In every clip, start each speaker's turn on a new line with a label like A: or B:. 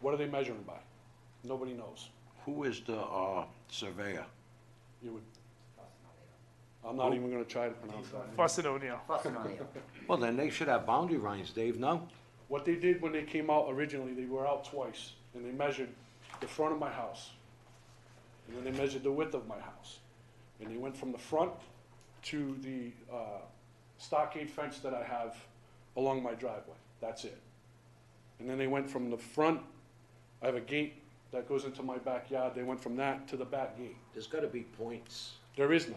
A: What are they measuring by? Nobody knows.
B: Who is the uh, surveyor?
A: You would, I'm not even gonna try to pronounce that.
C: Fussin O'Neill.
D: Fussin' O'Neill.
B: Well, then they should have boundary lines, Dave, no?
A: What they did when they came out originally, they were out twice, and they measured the front of my house. And then they measured the width of my house. And they went from the front to the, uh, stockade fence that I have along my driveway, that's it. And then they went from the front, I have a gate that goes into my backyard, they went from that to the back gate.
B: There's gotta be points.
A: There is none,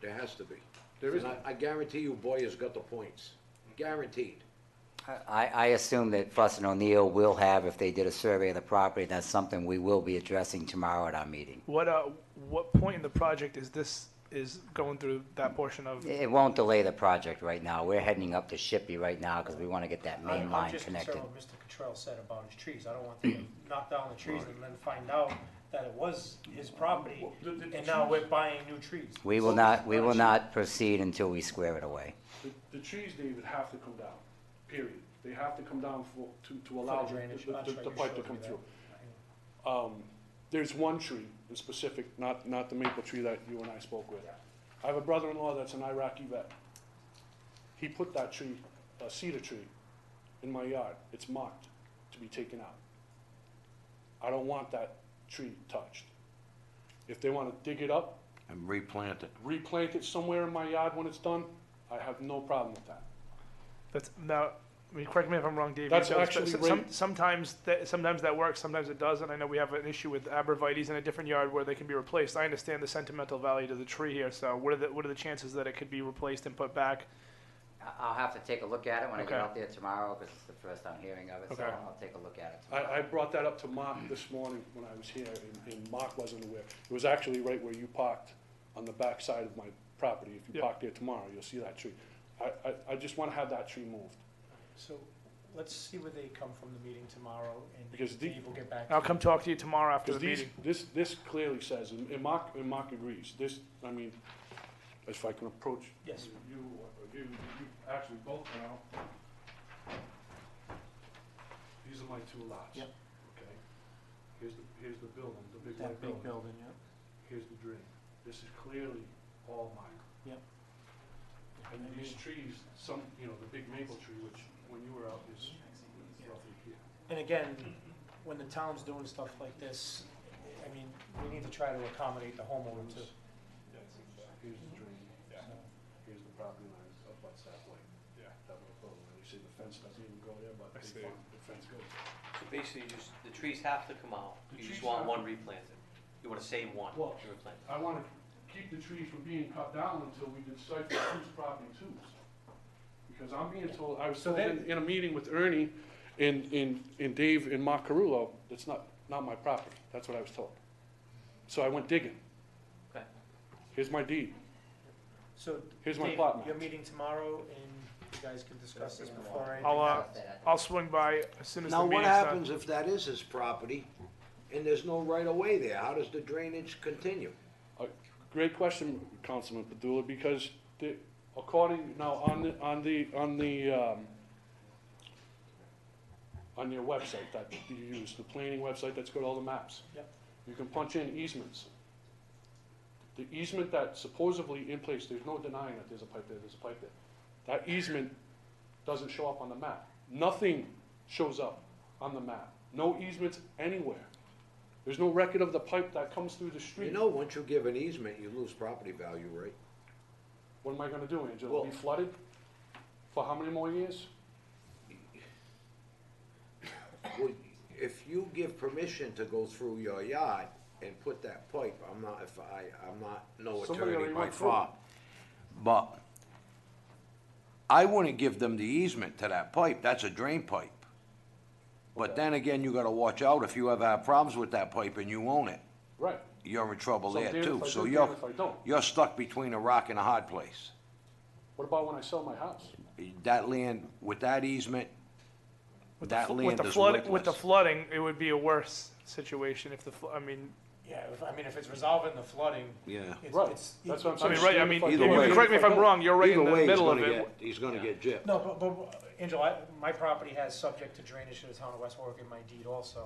B: There has to be.
A: there is
B: And
A: none.
B: I- I guarantee you Boyer's got the points. Guaranteed.
D: I, I assume that Fussin' O'Neill will have, if they did a survey of the property, that's something we will be addressing tomorrow at our meeting.
C: What, uh, what point in the project is this, is going through that portion of?
D: It won't delay the project right now. We're heading up to Shippey right now because we want to get that main
E: I'm-
D: line connected.
E: I'm just concerned what Mr. Cottrell said about his trees. I don't want them to knock down the trees and then find out that it was his property, and now we're buying new trees.
D: We will
A: Well,
D: not, we
A: not
D: will
A: sure.
D: not proceed until we square it away.
A: The, the trees, David, have to come down, period. They have to come down for, to, to allow the,
E: drainage,
A: the-
E: that's
A: the-
E: right,
A: the
E: you
A: pipe to
E: showed
A: come
E: me that.
A: through. Um, there's one tree in specific, not, not the maple tree that you and I spoke with. I have a brother-in-law that's an Iraqi vet. He put that tree, a cedar tree, in my yard. It's marked to be taken out. I don't want that tree touched. If they wanna dig it up,
B: And replant it.
A: replant it somewhere in my yard when it's done, I have no problem with that.
C: That's, now, I mean, correct me if I'm wrong, Dave. you
A: That's
C: know this,
A: actually
C: but
A: right-
C: some- Sometimes, that- sometimes that works, sometimes it doesn't. I know we have an issue with abrevieties in a different yard where they can be replaced. I understand the sentimental value to the tree here, so what are the, what are the chances that it could be replaced and put back?
D: I- I'll have to take a look at it when I get
C: Okay.
D: out there tomorrow because it's the first I'm hearing of it, so
C: Okay.
D: I'll take a look at it tomorrow.
A: I, I brought that up to Mark this morning when I was here, and, and Mark wasn't aware. It was actually right where you parked, on the back side of my property. If you
C: Yeah.
A: park there tomorrow, you'll see that tree. I, I, I just wanna have that tree moved.
E: So let's see where they come from the meeting tomorrow,
A: Because
E: and
A: the-
E: Dave will get back. to
C: I'll
E: you.
C: come talk to you tomorrow after the
A: Because these,
C: meeting.
A: this, this clearly says, and and Mark, and Mark agrees, this, I mean, if I can approach.
E: Yes.
A: You, or you, you actually both now. These are my two lots.
E: Yep.
A: Okay? Here's the, here's the building, the big
E: That
A: white
E: big
A: building.
E: building, yeah.
A: here's the drain. This is clearly all mine.
E: Yep.
A: And then these trees, some, you know, the big maple tree, which when you were out is roughly here.
E: And again, when the town's doing stuff like this, I mean, we need to try to accommodate the homeowner too.
A: Here's the drain, here's the property line, up by that way. Yeah. That little building, and you see the fence doesn't even go there, but
C: I
A: the
C: see.
A: fence, the fence goes.
F: So basically, you just, the trees have to come out,
A: The
F: you just
A: trees have
F: want one
A: to-
F: replanted. You wanna save one
A: Well,
F: to replant.
A: I wanna keep the trees from being cut down until we decipher whose property it's whose. Because I'm being told, I was told in, in a meeting with Ernie and, and, and Dave and Mark Carullo, that's not, not my property, that's what I was told. So I went digging,
F: Okay.
A: here's my deed,
E: So.
A: Here's my
E: Dave,
A: plot map.
E: Your meeting tomorrow, and you guys can discuss this before anything.
C: I'll, uh,
D: How's that?
C: I'll swing by as soon as the
B: Now, what
C: meeting's done.
B: happens if that is his property and there's no right of way there? How does the drainage continue?
A: A Great question, Councilman Padula, because the, according, now, on the, on the, on the, um, on your website that you use, the planning website that's got all the maps.
E: Yep.
A: You can punch in easements. The easement that supposedly in place, there's no denying that there's a pipe there, there's a pipe there. That easement doesn't show up on the map. Nothing shows up on the map. No easements anywhere. There's no record of the pipe that comes through the street.
B: You know, once you give an easement, you lose property value, right?
A: What am I gonna do, Angela? Be
B: Well-
A: flooded for how many more years?
B: Well, if you give permission to go through your yard and put that pipe, I'm not, if I, I'm not, no
A: Somebody
B: attorney
A: already
B: by
A: went through it.
B: far. But I wouldn't give them the easement to that pipe, that's a drain pipe. But then again, you gotta watch out, if you ever have problems with that pipe and you own it,
A: Right.
B: you're in trouble
A: So I'm
B: there
A: damned
B: too.
A: if I
B: So
A: do,
B: you're,
A: damned if I don't.
B: you're stuck between a rock and a hard place.
A: What about when I sell my house?
B: That land, with that easement,
C: With the
B: that
C: fl-
B: land
C: with the
B: is
C: flood- With the
B: worthless.
C: flooding, it would be a worse situation if the, fl- I mean,
E: Yeah, if, I mean, if it's resolving the flooding.
B: Yeah.
E: it's-
A: Right,
E: it's-
A: that's what I'm
C: I
A: saying.
C: mean, right, I
A: Damned
C: mean,
A: if
B: Either
A: do,
B: way.
A: damned
C: correct me if I'm
A: don't.
C: wrong, you're right in
B: either
C: the
B: way, he's
C: middle of
B: gonna
C: it.
B: get, he's gonna get gypped.
E: No, but, but, Angela, I- my property has subject to drainage to the town of West Warwick in my deed also.